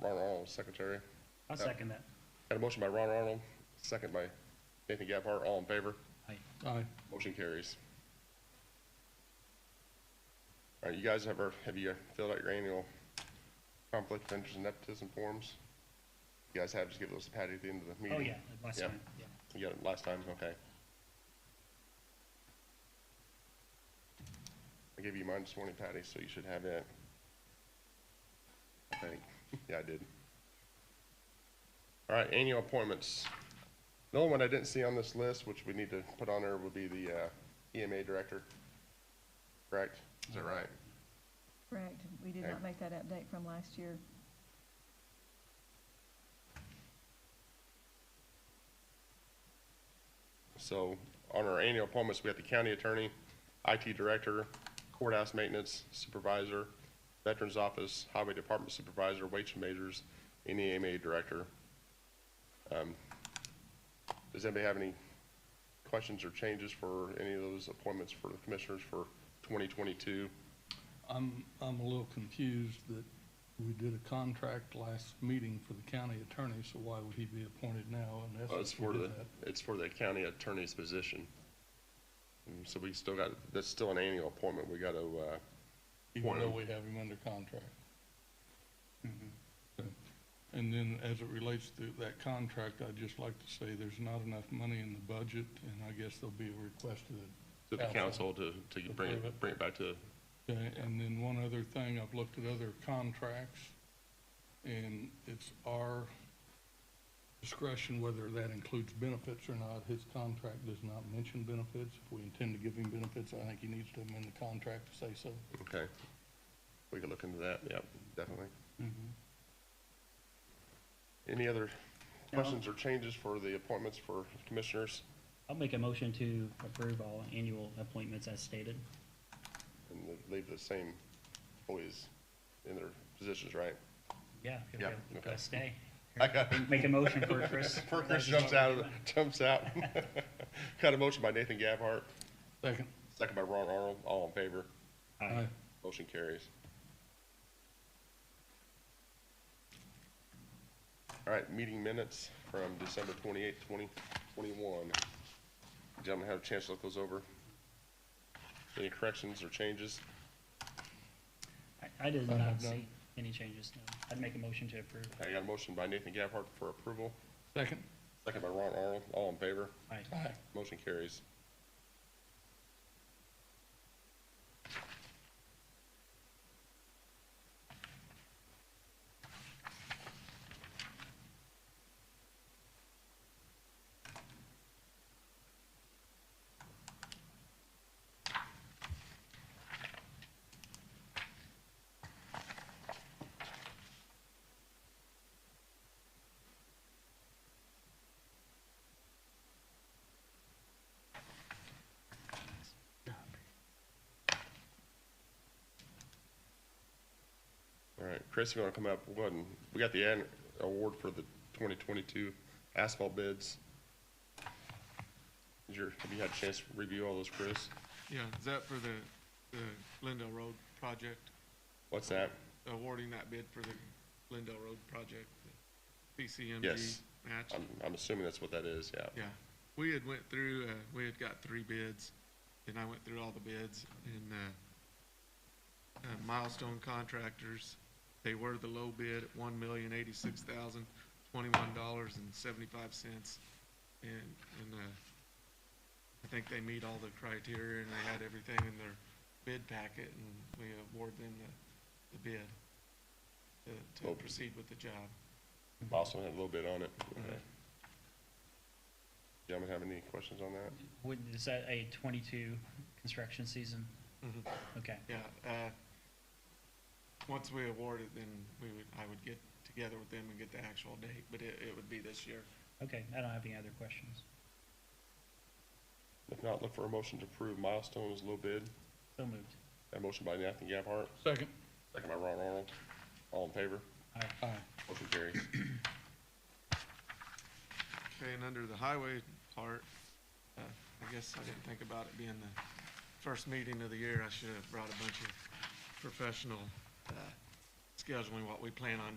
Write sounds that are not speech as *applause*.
Ron Arnold as secretary. Oh. I'll second that. Got a motion by Ron Arnold, second by Nathan Gabhart. All in favor? Aye. Aye. Motion carries. All right, you guys have, our- have you filled out your annual conflict of interest and nepotism forms? You guys have, just give those to Patty at the end of the meeting. Oh, yeah, last Yeah. time, yeah. You got it last time, okay. I gave you mine this morning, Patty, so you should have it. I think, *laughs* yeah, I did. All right, annual appointments. The only one I didn't see on this list, which we need to put on there, would be the uh, EMA director. Correct? Is that right? Correct. We did Okay. not make that update from last year. So on our annual appointments, we have the county attorney, IT director, courthouse maintenance supervisor, veterans office, highway department supervisor, weights and measures, and EMA director. Um, Does anybody have any questions or changes for any of those appointments for the commissioners for 2022? I'm, I'm a little confused that we did a contract last meeting for the county attorney, so why would he be appointed now unless Well, Uh, it's we for did the, that? it's for the county attorney's position. And So we still got, that's still an annual appointment. We got to, uh, Even though appointment. we have him under contract. Okay. And then as it relates to that contract, I'd just like to say there's not enough money in the budget, and I guess there'll be a request to to the the council Council. to, to bring Approve it, it. bring it back to Okay, and then one other thing, I've looked at other contracts, and it's our discretion whether that includes benefits or not. His contract does not mention benefits. If we intend to give him benefits, I think he needs to amend the contract to say so. Okay. We can look into that, yep, definitely. Mm-hmm. Any other No. questions or changes for the appointments for commissioners? I'll make a motion to approve all annual appointments as stated. And leave the same employees in their positions, right? Yeah. if Yeah, you'll okay. Stay. *laughs* I got, Make a motion for Chris. *laughs* before Chris jumps out, of the- jumps out. *laughs* Got a motion by Nathan Gabhart, Second. second by Ron Arnold, all in favor, Aye. motion carries. All right, meeting minutes from December twenty-eighth, twenty twenty-one. Gentlemen, have a chance to look those over. Any corrections or changes? I- I did I not have none. see any changes, no. I'd make a motion to approve. I got a motion by Nathan Gabhart for approval, Second. second by Ron Arnold, all in favor, Aye. Aye. motion carries. All right, Chris, if you want to come up, we'll go ahead and, we got the an- award for the twenty twenty-two asphalt bids. Is your, have you had a chance to review all those, Chris? Yeah, is that for the, the Glendale Road project, What's that? awarding that bid for the Glendale Road project, the PCMG Yes. match? I'm, I'm assuming that's what that is, yeah. Yeah, we had went through, uh, we had got three bids, and I went through all the bids, and, uh, uh, Milestone Contractors, they were the low bid at one million eighty-six thousand twenty-one dollars and seventy-five cents. And, and, uh, I think they meet all the criteria and they had everything in their bid packet, and we award them the, the bid to- to Well- proceed with the job. Boston had a little bit on it. Okay. Gentlemen, have any questions on that? Would, is that a twenty-two construction season? Mhm. Mm-hmm. Okay, Yeah, uh, once we award it, then we would, I would get together with them and get the actual date, but it, it would be this year. okay, I don't have any other questions. If not, look for a motion to approve milestones, low bid. So moved. That motion by Nathan Gabhart, Second. second by Ron Arnold. All in favor? Aye. Aye. Motion carries. Okay, and under the highway part, uh, I guess I didn't think about it being the first meeting of the year. I should have brought a bunch of professional, uh, scheduling, what we plan on